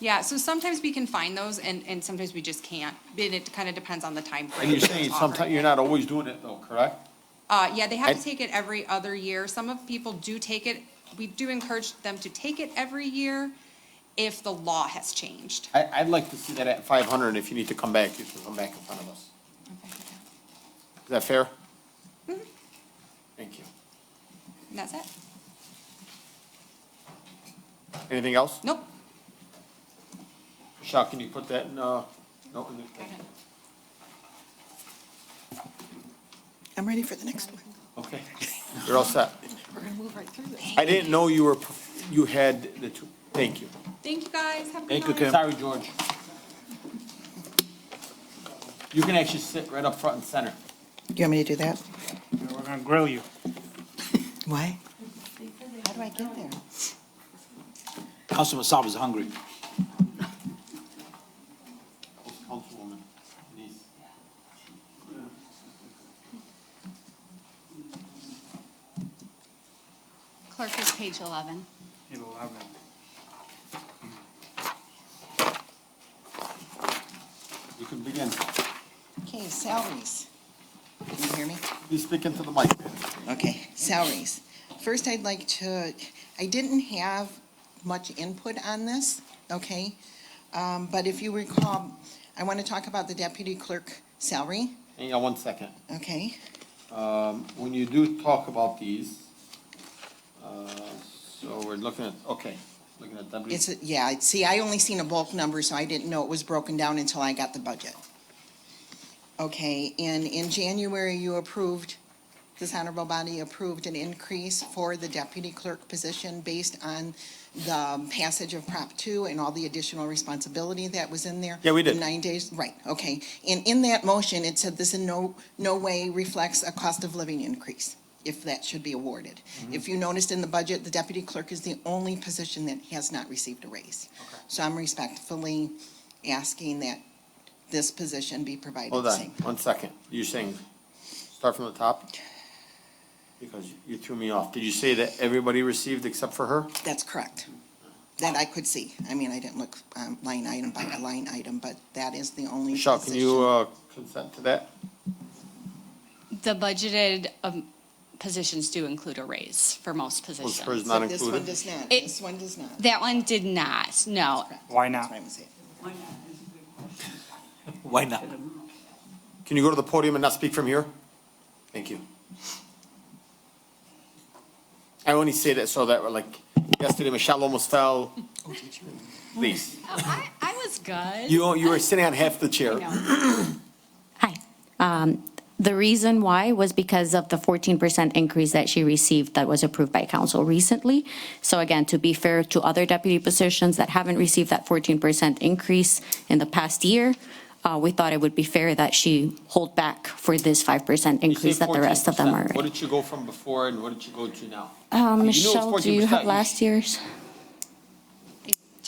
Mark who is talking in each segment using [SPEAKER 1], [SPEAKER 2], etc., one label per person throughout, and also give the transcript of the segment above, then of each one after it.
[SPEAKER 1] Yeah, so sometimes we can find those and, and sometimes we just can't. And it kind of depends on the time frame.
[SPEAKER 2] And you're saying
[SPEAKER 1] that's
[SPEAKER 2] sometimes,
[SPEAKER 1] offered.
[SPEAKER 2] you're not always doing it though, correct?
[SPEAKER 1] Uh, yeah, they have to
[SPEAKER 2] I-
[SPEAKER 1] take it every other year. Some of people do take it, we do encourage them to take it every year if the law has changed.
[SPEAKER 2] I, I'd like to see that at five hundred, and if you need to come back, you can come back in front of us. Is that fair? Thank you.
[SPEAKER 1] And that's it?
[SPEAKER 2] Anything else?
[SPEAKER 1] Nope.
[SPEAKER 2] Michelle, can you put that in, uh, no, in the,
[SPEAKER 3] I'm ready for the next one.
[SPEAKER 2] okay, you're all set.
[SPEAKER 3] We're gonna move right through this.
[SPEAKER 2] I didn't know you were, you had the two, thank you.
[SPEAKER 1] Thank you, guys. Have a good night.
[SPEAKER 2] Thank you, Kim. Sorry, George. You can actually sit right up front and center.
[SPEAKER 3] You want me to do that?
[SPEAKER 4] We're gonna grill you.
[SPEAKER 3] Why? How do I get there?
[SPEAKER 5] Councilman Saab is hungry.
[SPEAKER 2] Councilwoman Denise.
[SPEAKER 6] Clerk is page 11.
[SPEAKER 4] Eleven.
[SPEAKER 2] You can begin.
[SPEAKER 3] Okay, salaries. Can you hear me?
[SPEAKER 2] Please speak into the mic.
[SPEAKER 3] Okay, salaries. First, I'd like to, I didn't have much input on this, okay? Um, but if you recall, I want to talk about the deputy clerk salary,
[SPEAKER 2] Hang on one second.
[SPEAKER 3] okay?
[SPEAKER 2] When you do talk about these, uh, so we're looking at, okay, looking at W.
[SPEAKER 3] It's, a- yeah, I- see, I only seen a bulk number, so I didn't know it was broken down until I got the budget. Okay, and in January, you approved, this honorable body approved an increase for the deputy clerk position based on the passage of Prop two and all the additional responsibility that was in there.
[SPEAKER 2] Yeah, we did.
[SPEAKER 3] Nine days, right, okay. And in that motion, it said this in no, no way reflects a cost of living increase, if that should be awarded.
[SPEAKER 2] Mm-hmm.
[SPEAKER 3] If you noticed in the budget, the deputy clerk is the only position that has not received a raise. So I'm respectfully asking that this position be provided
[SPEAKER 2] Hold
[SPEAKER 3] the
[SPEAKER 2] on,
[SPEAKER 3] same.
[SPEAKER 2] one second. You're saying, start from the top? Because you threw me off. Did you say that everybody received except for her?
[SPEAKER 3] That's correct. That I could see. I mean, I didn't look um, line item by line item, but that is the only
[SPEAKER 2] Michelle, can you
[SPEAKER 3] position.
[SPEAKER 2] uh, consent to that?
[SPEAKER 6] The budgeted um, positions do include a raise for most
[SPEAKER 2] Was hers
[SPEAKER 6] positions.
[SPEAKER 2] uh, not
[SPEAKER 3] So this one
[SPEAKER 2] included?
[SPEAKER 3] does not,
[SPEAKER 6] It-
[SPEAKER 3] this one does not.
[SPEAKER 6] That one did not, no.
[SPEAKER 3] Correct.
[SPEAKER 4] Why
[SPEAKER 3] That's
[SPEAKER 4] not?
[SPEAKER 3] what I'm saying.
[SPEAKER 5] Why not?
[SPEAKER 2] Can you go to the podium and not speak from here? Thank you. I only say that so that, like, yesterday Michelle almost fell. Please,
[SPEAKER 6] I, Oh, I was good.
[SPEAKER 2] you, you were sitting on half the chair.
[SPEAKER 7] Hi. Um, The reason why was because of the 14% increase that she received that was approved by council recently. So again, to be fair to other deputy positions that haven't received that 14% increase in the past year, uh, we thought it would be fair that she hold back for this 5%
[SPEAKER 2] You say
[SPEAKER 7] increase that the rest of them
[SPEAKER 2] 14%.
[SPEAKER 7] are.
[SPEAKER 2] What did you go from before and what did you go to now?
[SPEAKER 7] Uh,
[SPEAKER 2] You knew it was
[SPEAKER 7] Michelle, do you
[SPEAKER 2] 14%.
[SPEAKER 7] have last year's?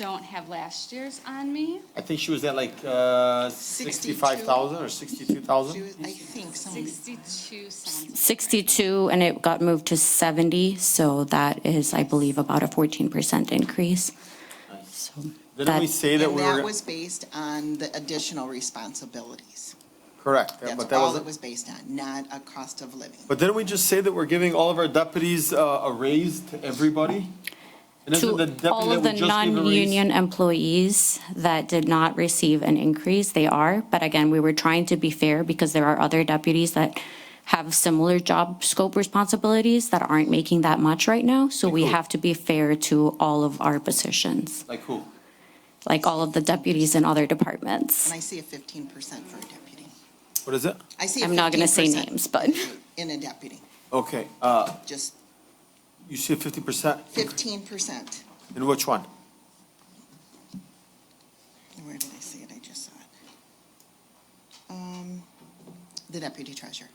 [SPEAKER 6] Don't have last year's on me.
[SPEAKER 2] I think she was at like, uh, sixty-five thousand or sixty-two
[SPEAKER 3] She
[SPEAKER 2] thousand?
[SPEAKER 3] was- I think someone,
[SPEAKER 6] 62 cents.
[SPEAKER 7] 62, and it got moved to 70, so that is, I believe, about a 14% increase. So
[SPEAKER 2] Didn't we
[SPEAKER 7] that-
[SPEAKER 2] say that
[SPEAKER 3] and
[SPEAKER 2] we were,
[SPEAKER 3] that was based on the additional responsibilities.
[SPEAKER 2] correct, yeah,
[SPEAKER 3] That's
[SPEAKER 2] but that
[SPEAKER 3] all it
[SPEAKER 2] was,
[SPEAKER 3] was based on, not a cost of living.
[SPEAKER 2] but didn't we just say that we're giving all of our deputies, uh, a raise to everybody? And isn't the
[SPEAKER 7] to
[SPEAKER 2] deputy
[SPEAKER 7] all of the
[SPEAKER 2] that we just gave a raise-
[SPEAKER 7] non-union employees that did not receive an increase, they are. But again, we were trying to be fair because there are other deputies that have similar job scope responsibilities that aren't making that much right now. So we
[SPEAKER 2] Cool.
[SPEAKER 7] have to be fair to all of our positions,
[SPEAKER 2] Like who?
[SPEAKER 7] like all of the deputies in other departments.
[SPEAKER 3] And I see a fifteen percent for a deputy.
[SPEAKER 2] What is it?
[SPEAKER 3] I see a
[SPEAKER 7] I'm not going to say
[SPEAKER 3] 15%
[SPEAKER 7] names, but
[SPEAKER 3] In a deputy,
[SPEAKER 2] Okay, uh,
[SPEAKER 3] just
[SPEAKER 2] you see fifty percent,
[SPEAKER 3] fifteen percent.
[SPEAKER 2] in which one?
[SPEAKER 3] Where did I see it? I just saw it. Um, The deputy treasurer.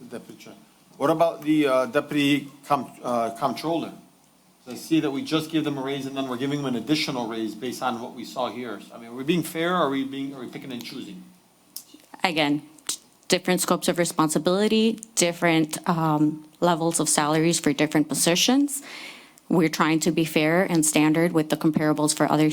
[SPEAKER 2] The deputy. chair. What about the, uh, deputy com, uh, comptroller? I see that we just gave them a raise and then we're giving them an additional raise based on what we saw here. So, I mean, are we being fair or are we being, are we picking and choosing?
[SPEAKER 7] again, t- different scopes of responsibility, different um, levels of salaries for different positions. We're trying to be fair and standard with the comparables for other